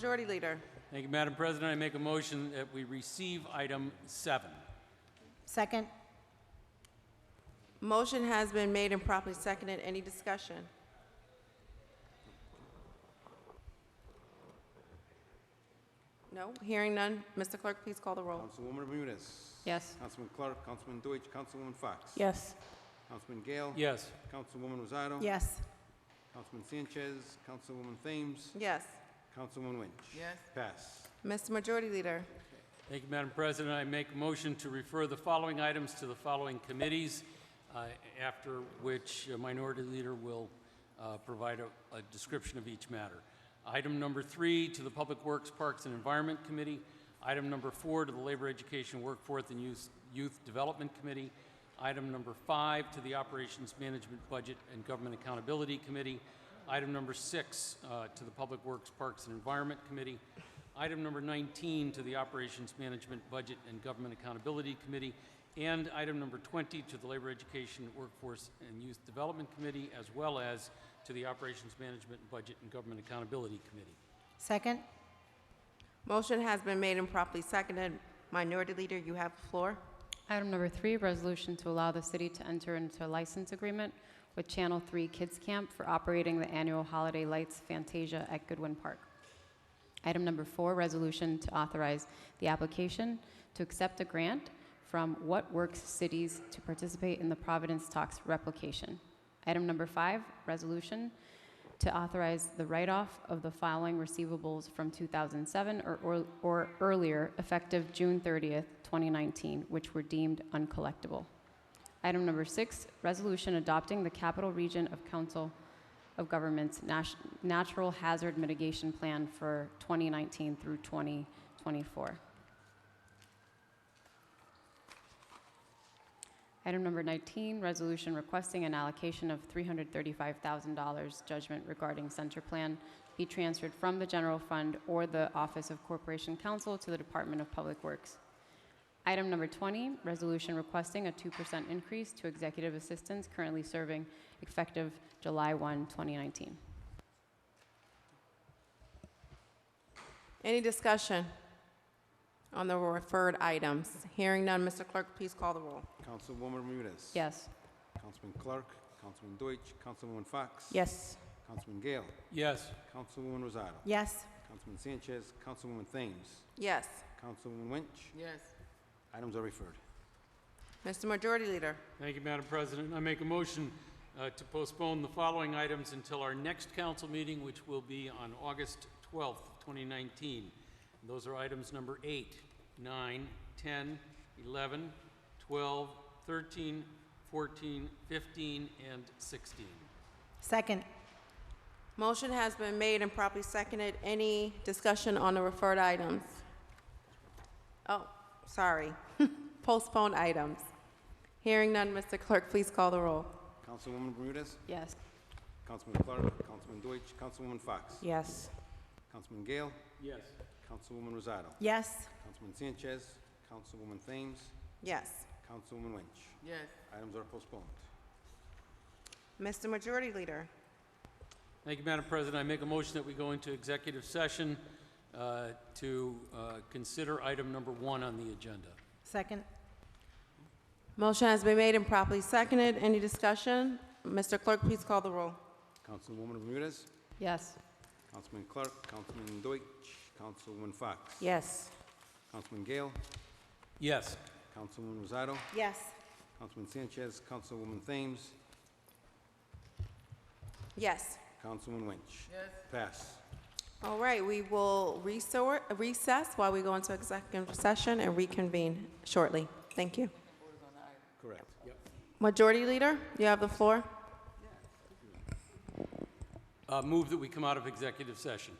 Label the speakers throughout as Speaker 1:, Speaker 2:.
Speaker 1: Majority Leader.
Speaker 2: Thank you, Madam President. I make a motion that we receive item seven.
Speaker 3: Second.
Speaker 1: Motion has been made and properly seconded. Any discussion? No? Hearing none. Mr. Clerk, please call the roll.
Speaker 4: Councilwoman Bermudez.
Speaker 3: Yes.
Speaker 4: Councilman Clark, Councilman Deutsch, Councilwoman Fox.
Speaker 3: Yes.
Speaker 4: Councilman Gale.
Speaker 2: Yes.
Speaker 4: Councilwoman Rosado.
Speaker 3: Yes.
Speaker 4: Councilman Sanchez, Councilwoman Thames,
Speaker 1: Yes.
Speaker 4: Councilwoman Lynch. Yes. Pass.
Speaker 1: Mr. Majority Leader.
Speaker 2: Thank you, Madam President. I make a motion to refer the following items to the following committees, uh, after which a Minority Leader will uh, provide a a description of each matter. Item number three, to the Public Works, Parks, and Environment Committee. Item number four, to the Labor, Education, Workforce, and Youth Youth Development Committee. Item number five, to the Operations Management Budget and Government Accountability Committee. Item number six, uh, to the Public Works, Parks, and Environment Committee. Item number 19, to the Operations Management Budget and Government Accountability Committee. And item number 20, to the Labor, Education, Workforce, and Youth Development Committee, as well as to the Operations Management Budget and Government Accountability Committee.
Speaker 3: Second.
Speaker 1: Motion has been made and properly seconded. Minority Leader, you have the floor.
Speaker 5: Item number three, resolution to allow the city to enter into a license agreement with Channel 3 Kids Camp for operating the annual Holiday Lights Fantasia at Goodwin Park. Item number four, resolution to authorize the application to accept a grant from What Works Cities to participate in the Providence Talks replication. Item number five, resolution to authorize the write-off of the following receivables from 2007 or- or or earlier, effective June 30th, 2019, which were deemed uncollectible. Item number six, resolution adopting the Capital Region of Council of Governments Nat- Natural Hazard Mitigation Plan for 2019 through 2024. Item number 19, resolution requesting an allocation of $335,000 judgment regarding center plan be transferred from the general fund or the Office of Corporation Counsel to the Department of Public Works. Item number 20, resolution requesting a 2% increase to executive assistants currently serving effective July 1, 2019.
Speaker 1: Any discussion on the referred items? Hearing none. Mr. Clerk, please call the roll.
Speaker 4: Councilwoman Bermudez.
Speaker 5: Yes.
Speaker 4: Councilman Clark, Councilman Deutsch, Councilwoman Fox.
Speaker 3: Yes.
Speaker 4: Councilman Gale,
Speaker 2: Yes.
Speaker 4: Councilwoman Rosado.
Speaker 3: Yes.
Speaker 4: Councilman Sanchez, Councilwoman Thames,
Speaker 1: Yes.
Speaker 4: Councilwoman Lynch. Yes. Items are referred.
Speaker 1: Mr. Majority Leader.
Speaker 2: Thank you, Madam President. I make a motion uh, to postpone the following items until our next council meeting, which will be on August 12th, 2019. Those are items number 8, 9, 10, 11, 12, 13, 14, 15, and 16.
Speaker 3: Second.
Speaker 1: Motion has been made and properly seconded. Any discussion on the referred items? Oh, sorry. Postponed items. Hearing none, Mr. Clerk, please call the roll.
Speaker 4: Councilwoman Bermudez,
Speaker 5: Yes.
Speaker 4: Councilman Clark, Councilman Deutsch, Councilwoman Fox.
Speaker 3: Yes.
Speaker 4: Councilman Gale,
Speaker 2: Yes.
Speaker 4: Councilwoman Rosado.
Speaker 3: Yes.
Speaker 4: Councilman Sanchez, Councilwoman Thames,
Speaker 1: Yes.
Speaker 4: Councilwoman Lynch. Yes. Items are postponed.
Speaker 1: Mr. Majority Leader.
Speaker 2: Thank you, Madam President. I make a motion that we go into executive session uh, to uh, consider item number 1 on the agenda.
Speaker 3: Second.
Speaker 1: Motion has been made and properly seconded. Any discussion? Mr. Clerk, please call the roll.
Speaker 4: Councilwoman Bermudez,
Speaker 5: Yes.
Speaker 4: Councilman Clark, Councilman Deutsch, Councilwoman Fox.
Speaker 3: Yes.
Speaker 4: Councilman Gale,
Speaker 2: Yes.
Speaker 4: Councilwoman Rosado,
Speaker 3: Yes.
Speaker 4: Councilman Sanchez, Councilwoman Thames,
Speaker 1: Yes.
Speaker 4: Councilwoman Lynch. Yes. Pass.
Speaker 1: All right, we will resor- recess while we go into executive session and reconvene shortly. Thank you.
Speaker 4: Correct.
Speaker 1: Majority Leader, you have the floor.
Speaker 2: Uh, Move that we come out of executive session.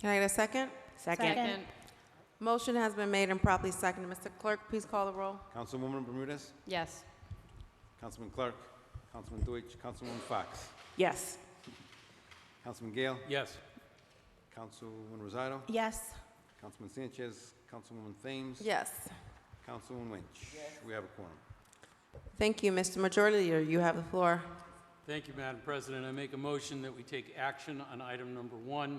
Speaker 1: Can I get a second?
Speaker 3: Second.
Speaker 1: Motion has been made and properly seconded. Mr. Clerk, please call the roll.
Speaker 4: Councilwoman Bermudez,
Speaker 5: Yes.
Speaker 4: Councilman Clark, Councilman Deutsch, Councilwoman Fox,
Speaker 3: Yes.
Speaker 4: Councilman Gale,
Speaker 2: Yes.
Speaker 4: Councilwoman Rosado,
Speaker 3: Yes.
Speaker 4: Councilman Sanchez, Councilwoman Thames,
Speaker 1: Yes.
Speaker 4: Councilwoman Lynch. We have a quorum.
Speaker 1: Thank you, Mr. Majority Leader. You have the floor.
Speaker 2: Thank you, Madam President. I make a motion that we take action on item number one